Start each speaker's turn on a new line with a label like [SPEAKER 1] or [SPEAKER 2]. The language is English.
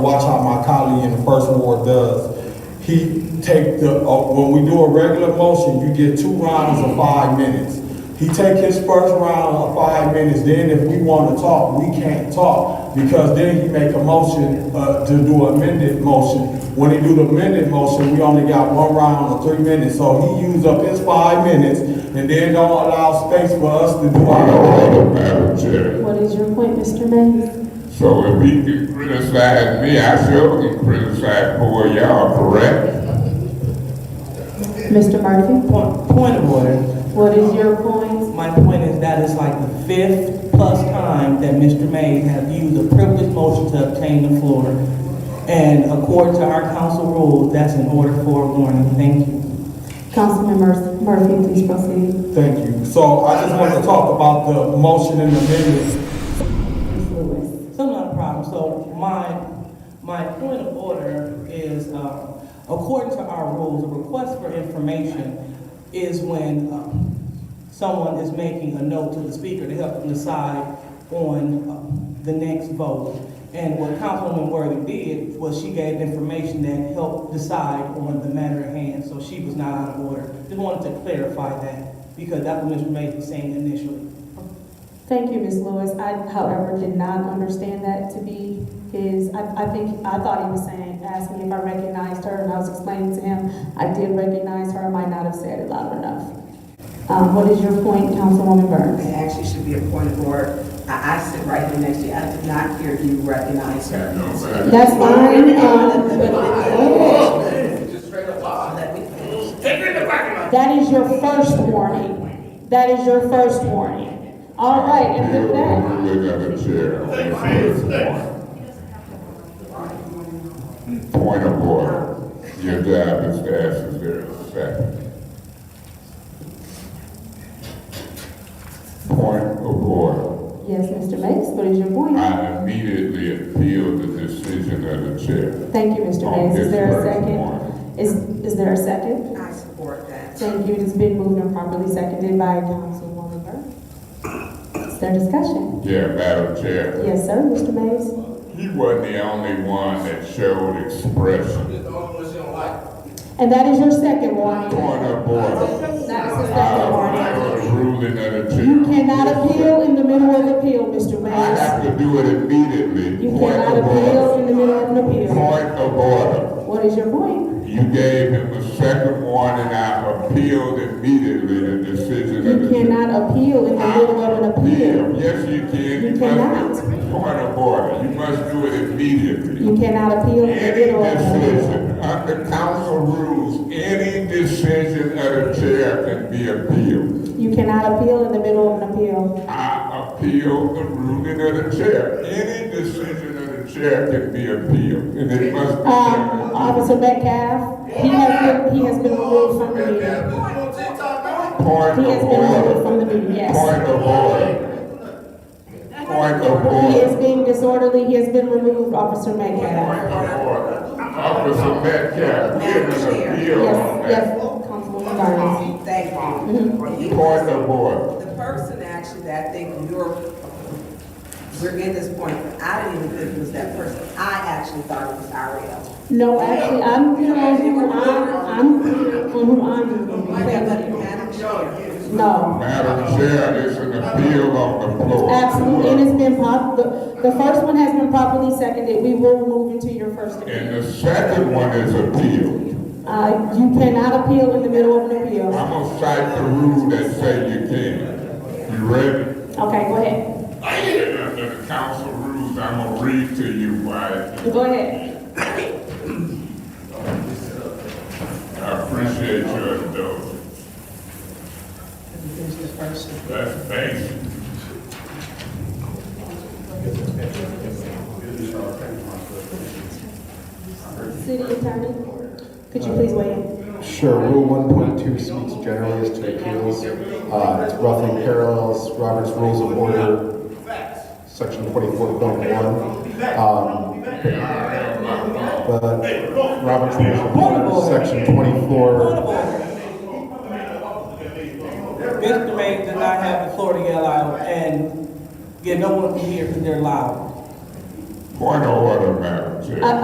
[SPEAKER 1] Watch how my colleague in the first ward does. He take the, uh, when we do a regular motion, you get two rounds of five minutes. He take his first round of five minutes, then if we wanna talk, we can't talk, because then he make a motion, uh, to do amended motion. When he do the amended motion, we only got one round of three minutes, so he use up his five minutes, and then don't allow space for us to do our.
[SPEAKER 2] Madam Chair.
[SPEAKER 3] What is your point, Mr. Mays?
[SPEAKER 2] So if he can criticize me, I sure can criticize poor y'all, correct?
[SPEAKER 3] Mr. Murphy?
[SPEAKER 4] Point, point of order.
[SPEAKER 3] What is your point?
[SPEAKER 4] My point is that it's like the fifth plus time that Mr. Mays have used a privileged motion to obtain the floor. And according to our council rules, that's an order for a warning. Thank you.
[SPEAKER 3] Councilman Mur- Murphy, please proceed.
[SPEAKER 1] Thank you. So I just want to talk about the motion and amendments.
[SPEAKER 3] Ms. Lewis.
[SPEAKER 4] So not a problem. So my, my point of order is, uh, according to our rules, a request for information is when um, someone is making a note to the speaker to help them decide on uh, the next vote. And what Councilwoman Worthy did was she gave information that helped decide on the matter at hand, so she was not out of order. Just wanted to clarify that, because that's what Mr. Mays was saying initially.
[SPEAKER 3] Thank you, Ms. Lewis. I, however, did not understand that to be his, I, I think, I thought he was saying, asked me if I recognized her, and I was explaining to him, I did recognize her, I might not have said it loud enough. Um, what is your point, Councilwoman Burns?
[SPEAKER 5] It actually should be a point of order. I, I sit right here next to you. I did not hear you recognize her.
[SPEAKER 2] No, madam.
[SPEAKER 3] That's fine, um, but- That is your first warning. That is your first warning. All right, and with that,
[SPEAKER 2] Madam Chair, I want to say this point. Point of order. Your job is to ask if there is a second. Point of order.
[SPEAKER 3] yes, Mr. Mays, what is your point?
[SPEAKER 2] I immediately appeal the decision of the chair.
[SPEAKER 3] Thank you, Mr. Mays. Is there a second? Is, is there a second?
[SPEAKER 5] I support that.
[SPEAKER 3] Thank you. It has been moved and properly seconded by Councilwoman Burke. Is there discussion?
[SPEAKER 2] Yeah, Madam Chair.
[SPEAKER 3] Yes, sir, Mr. Mays?
[SPEAKER 2] He wasn't the only one that showed expression.
[SPEAKER 3] And that is your second warning.
[SPEAKER 2] Point of order.
[SPEAKER 3] That is the
[SPEAKER 2] I
[SPEAKER 3] second warning.
[SPEAKER 2] I was ruling that a
[SPEAKER 3] You cannot appeal in the middle of the appeal, Mr.
[SPEAKER 2] I have
[SPEAKER 3] Mays.
[SPEAKER 2] to do it immediately.
[SPEAKER 3] You
[SPEAKER 2] Point
[SPEAKER 3] cannot
[SPEAKER 2] of
[SPEAKER 3] appeal
[SPEAKER 2] order.
[SPEAKER 3] in the middle of an appeal.
[SPEAKER 2] Point of order.
[SPEAKER 3] What is your point?
[SPEAKER 2] You gave him a second warning, I appealed immediately the decision of
[SPEAKER 3] You
[SPEAKER 2] the chair.
[SPEAKER 3] cannot appeal in the middle of an appeal.
[SPEAKER 2] Yes, you can.
[SPEAKER 3] You
[SPEAKER 2] must-
[SPEAKER 3] cannot.
[SPEAKER 2] Point of order. You must do it immediately.
[SPEAKER 3] You cannot appeal in the
[SPEAKER 2] Any
[SPEAKER 3] middle of an appeal.
[SPEAKER 2] decision, under council rules, any decision of the chair can be appealed.
[SPEAKER 3] You cannot appeal in the middle of an appeal.
[SPEAKER 2] I appeal the ruling of the chair. Any decision of the chair can be appealed, and it must be.
[SPEAKER 3] Um, Officer Metcalf, he has been, he has been removed from the meeting.
[SPEAKER 2] Point
[SPEAKER 3] He has
[SPEAKER 2] of
[SPEAKER 3] been removed from the
[SPEAKER 2] order.
[SPEAKER 3] meeting, yes.
[SPEAKER 2] Point of order. Point of
[SPEAKER 3] He is
[SPEAKER 2] order.
[SPEAKER 3] being disorderly, he has been removed, Officer
[SPEAKER 2] Point
[SPEAKER 3] Metcalf.
[SPEAKER 2] of order. Officer Metcalf, give an appeal on
[SPEAKER 3] Yes,
[SPEAKER 2] that.
[SPEAKER 3] yes, Councilwoman Burns.
[SPEAKER 5] Thank you. You-
[SPEAKER 2] Point of order.
[SPEAKER 5] The person actually that I think you're, we're in this point, I didn't even think it was that person. I actually thought it was Ariel.
[SPEAKER 3] No, actually, I'm clear on who I'm, I'm clear on who I'm.
[SPEAKER 5] But
[SPEAKER 3] saying.
[SPEAKER 5] Madam Chair,
[SPEAKER 3] No.
[SPEAKER 2] Madam Chair, there's an appeal on the floor.
[SPEAKER 3] Absolutely, and it's been pop, the, the first one has been properly seconded, we will move into your first appeal.
[SPEAKER 2] And the second one is appeal.
[SPEAKER 3] Uh, you cannot appeal in the middle of an
[SPEAKER 2] I'm
[SPEAKER 3] appeal.
[SPEAKER 2] gonna cite the rule that say you can. You ready?
[SPEAKER 3] Okay, go ahead,
[SPEAKER 2] Under the council rules, I'm gonna read to you why
[SPEAKER 3] go ahead.
[SPEAKER 2] I appreciate your indulgence. That's basic.
[SPEAKER 3] City attorney, could you please weigh in?
[SPEAKER 6] Sure, Rule 1.2 speaks generally as to appeals. Uh, It roughly parallels Robert's Rules of Order, Section 44.1. Um, But Robert's Rules of Order, Section 24,
[SPEAKER 4] Mr. Ray did not have the floor to yell out, and, yeah, no one can hear because they're loud.
[SPEAKER 2] Point of order, Madam
[SPEAKER 7] Madam Chair.
[SPEAKER 2] I-